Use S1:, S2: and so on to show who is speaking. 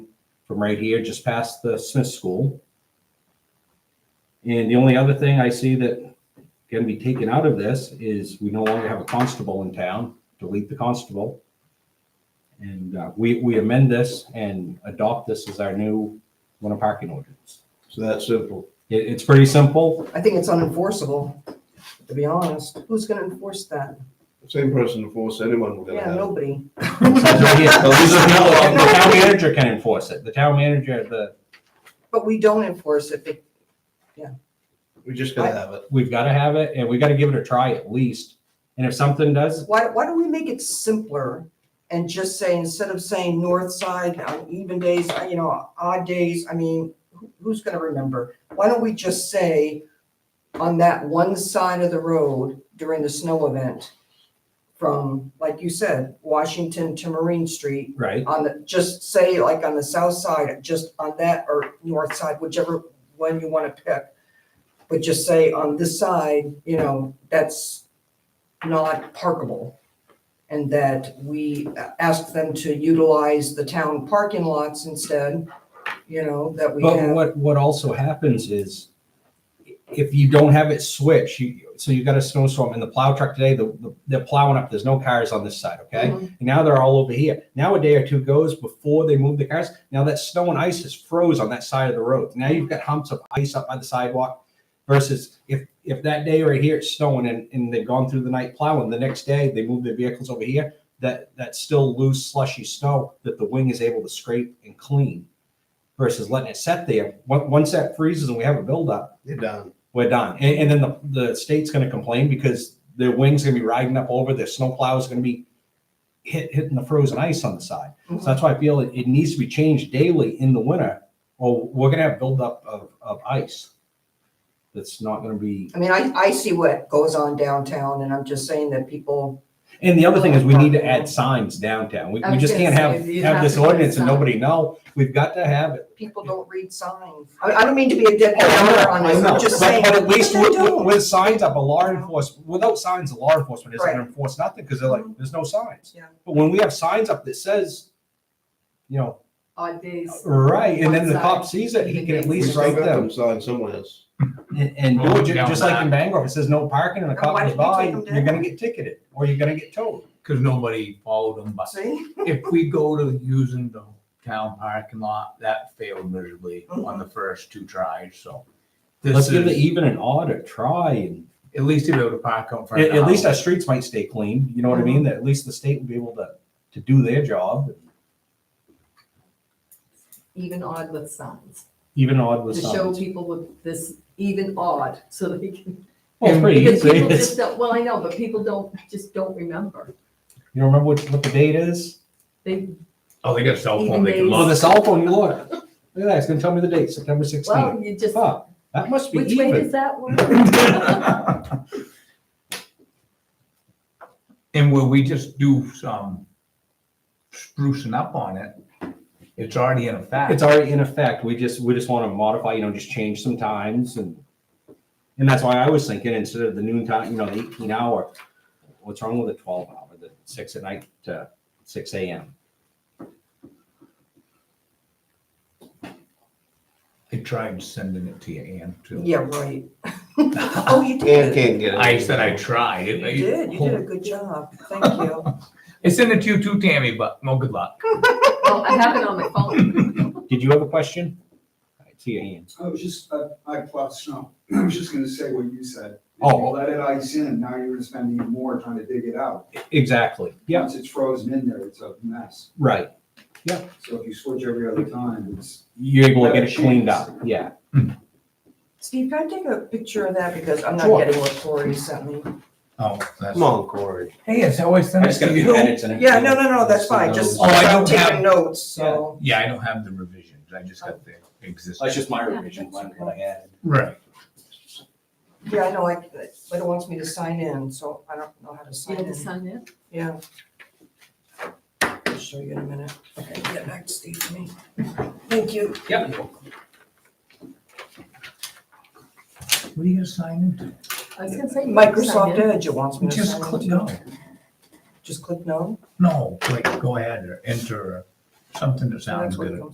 S1: from right here, just past the Smith School. And the only other thing I see that can be taken out of this is we no longer have a constable in town, delete the constable. And uh, we, we amend this and adopt this as our new winter parking ordinance.
S2: So that's simple.
S1: It, it's pretty simple.
S3: I think it's unenforceable, to be honest. Who's gonna enforce that?
S2: The Same person to force anyone we're gonna
S3: Yeah,
S2: have.
S3: nobody.
S1: Yeah, The the town manager can enforce it. The town manager, the,
S3: But we don't enforce it. It-
S2: We're just gonna have it.
S1: we've got to have it and we got to give it a try at least. And if something does,
S3: Why, why don't we make it simpler and just say, instead of saying north side on even days, uh, you know, odd days, I mean, who- who's gonna remember? Why don't we just say on that one side of the road during the snow event from, like you said, Washington to Marine Street,
S1: right,
S3: on the, just say like on the south side, just on that or north side, whichever one you want to pick. But just say on this side, you know, that's not parkable. And that we ask them to utilize the town parking lots instead, you know, that we
S1: But
S3: have.
S1: what, what also happens is if you don't have it switched, you, so you got a snowstorm and the plow truck today, the, the- they're plowing up, there's no cars on this side, okay?
S3: Mhm.
S1: And now they're all over here. Now a day or two goes before they move the cars. Now that snow and ice is froze on that side of the road. Now you've got humps of ice up by the sidewalk versus if, if that day right here it's snowing and, and they've gone through the night plowing, the next day they move their vehicles over here, that, that's still loose slushy snow that the wing is able to scrape and clean versus letting it set there. Once, once that freezes and we have a buildup,
S2: You're done.
S1: we're done. And, and then the, the state's gonna complain because their wing's gonna be riding up over, their snowplow is gonna be hit, hitting the frozen ice on the side.
S4: Mm-hmm.
S1: So that's why I feel it, it needs to be changed daily in the winter, or we're gonna have buildup of, of ice. That's not gonna be,
S3: I mean, I, I see what goes on downtown and I'm just saying that people,
S1: and the other thing is we need to add signs downtown. We,
S4: I
S1: we
S4: was
S1: just
S4: gonna
S1: can't
S4: say,
S1: have,
S4: you
S1: have
S4: have
S1: this
S4: to put a
S1: ordinance and
S4: sign.
S1: nobody know. We've got to have it.
S3: people don't read signs. I, I don't mean to be a dead downer on
S1: I
S3: this,
S1: know,
S3: I'm just
S1: but-
S3: saying.
S1: But at least
S3: they
S1: with, with-
S3: don't.
S1: with signs up, a law enforcement, without signs, the law enforcement isn't gonna
S3: Right.
S1: enforce nothing, because they're like, there's no signs.
S3: Yeah.
S1: But when we have signs up that says, you know,
S4: odd days.
S1: right, and then the
S4: One
S1: cop
S4: sign.
S1: sees it, he can at
S2: We
S1: least
S2: still
S1: write
S2: got
S1: them.
S2: them signed somewhere else.
S1: And, and do it, ju-
S5: Well,
S1: just like in
S5: down
S1: Bangor, if it says no parking and a
S3: And
S1: cop
S3: why
S1: goes
S3: did they
S1: by,
S3: take 'em
S1: you're
S3: down?
S1: gonna get ticketed, or you're gonna get towed.
S5: because nobody followed them. But
S3: See?
S5: if we go to using the town parking lot, that failed miserably on
S3: Mm-hmm.
S5: the first two tries, so.
S1: Let's
S5: This
S1: give it
S5: is,
S1: even an odd a try, and
S5: at least to be able to park out front.
S1: at,
S5: of the
S1: at least our
S5: house.
S1: streets might stay clean, you know what I mean, that at least the state would be able to, to do their job,
S4: Even odd with signs,
S1: even odd
S4: to
S1: with
S4: show
S1: signs.
S4: people with this even odd, so they can.
S1: Well, it's pretty
S4: Because
S1: easy.
S4: people
S1: It's-
S4: just don't, well, I know, but people don't, just don't remember.
S1: You don't remember what, what the date is?
S4: They,
S5: Oh, they got a cell
S4: Even
S5: phone, they can
S4: days.
S1: Oh, the
S5: look.
S1: cell phone, you look. Look at that, it's gonna tell me the date, September sixteenth.
S4: well, you just,
S1: Fuck, that must be
S4: which way does
S1: even.
S4: that work?
S5: And will we just do some sprucing up on it? It's already in effect.
S1: It's already in effect, we just, we just wanna modify, you know, just change some times and, and that's why I was thinking, instead of the noon time, you know, the eighteen hour, what's wrong with the twelve hour, the six at night to six AM?
S5: I tried sending it to you, Ann, too.
S3: Yeah, right. Oh, you
S2: Ann
S3: did.
S2: can't get it.
S5: I said I tried.
S3: You
S5: It- it-
S3: did, you did a good job, thank you.
S5: I sent it to you too, Tammy, but no good luck.
S4: Well, I have it on my phone.
S1: Did you have a question? I see your hand.
S6: I was just, I, I plowed snow. I was just gonna say what you said. If you
S1: Oh.
S6: let it ice in, now you're gonna spend even more trying to dig it out.
S1: Exactly, yeah,
S6: Once it's frozen in there, it's a mess.
S1: right,
S6: So if you switch every other time, it's.
S1: you're able to get it cleaned up, yeah.
S3: Steve, can I take a picture of that, because I'm not
S1: Sure.
S3: getting what Corey sent me?
S5: Oh, that's.
S2: Come on, Corey.
S5: Hey, it's always sent it to you.
S3: Yeah, no, no, no, that's fine, just,
S5: Oh, I
S3: I'm
S5: don't have-
S3: taking notes, so.
S5: Yeah, I don't have the revisions. I just got the existing.
S1: just my
S4: revision,
S1: what I had.
S5: Right.
S3: Yeah, I know, I, but it wants me to sign in, so I don't know how to
S4: You
S3: sign
S4: had to
S3: in,
S4: sign in?
S3: yeah. I'll show you in a minute. Okay, get back to Steve for me. Thank you.
S5: Yep. What are you gonna sign into?
S4: I was gonna say. you had to sign
S3: Microsoft
S4: in.
S3: Edge, it wants me to
S5: Just
S3: sign
S5: click
S3: in.
S5: no.
S3: Just click no?
S5: No, click, go ahead or enter or something that sounds
S3: That's what it
S5: good.
S3: comes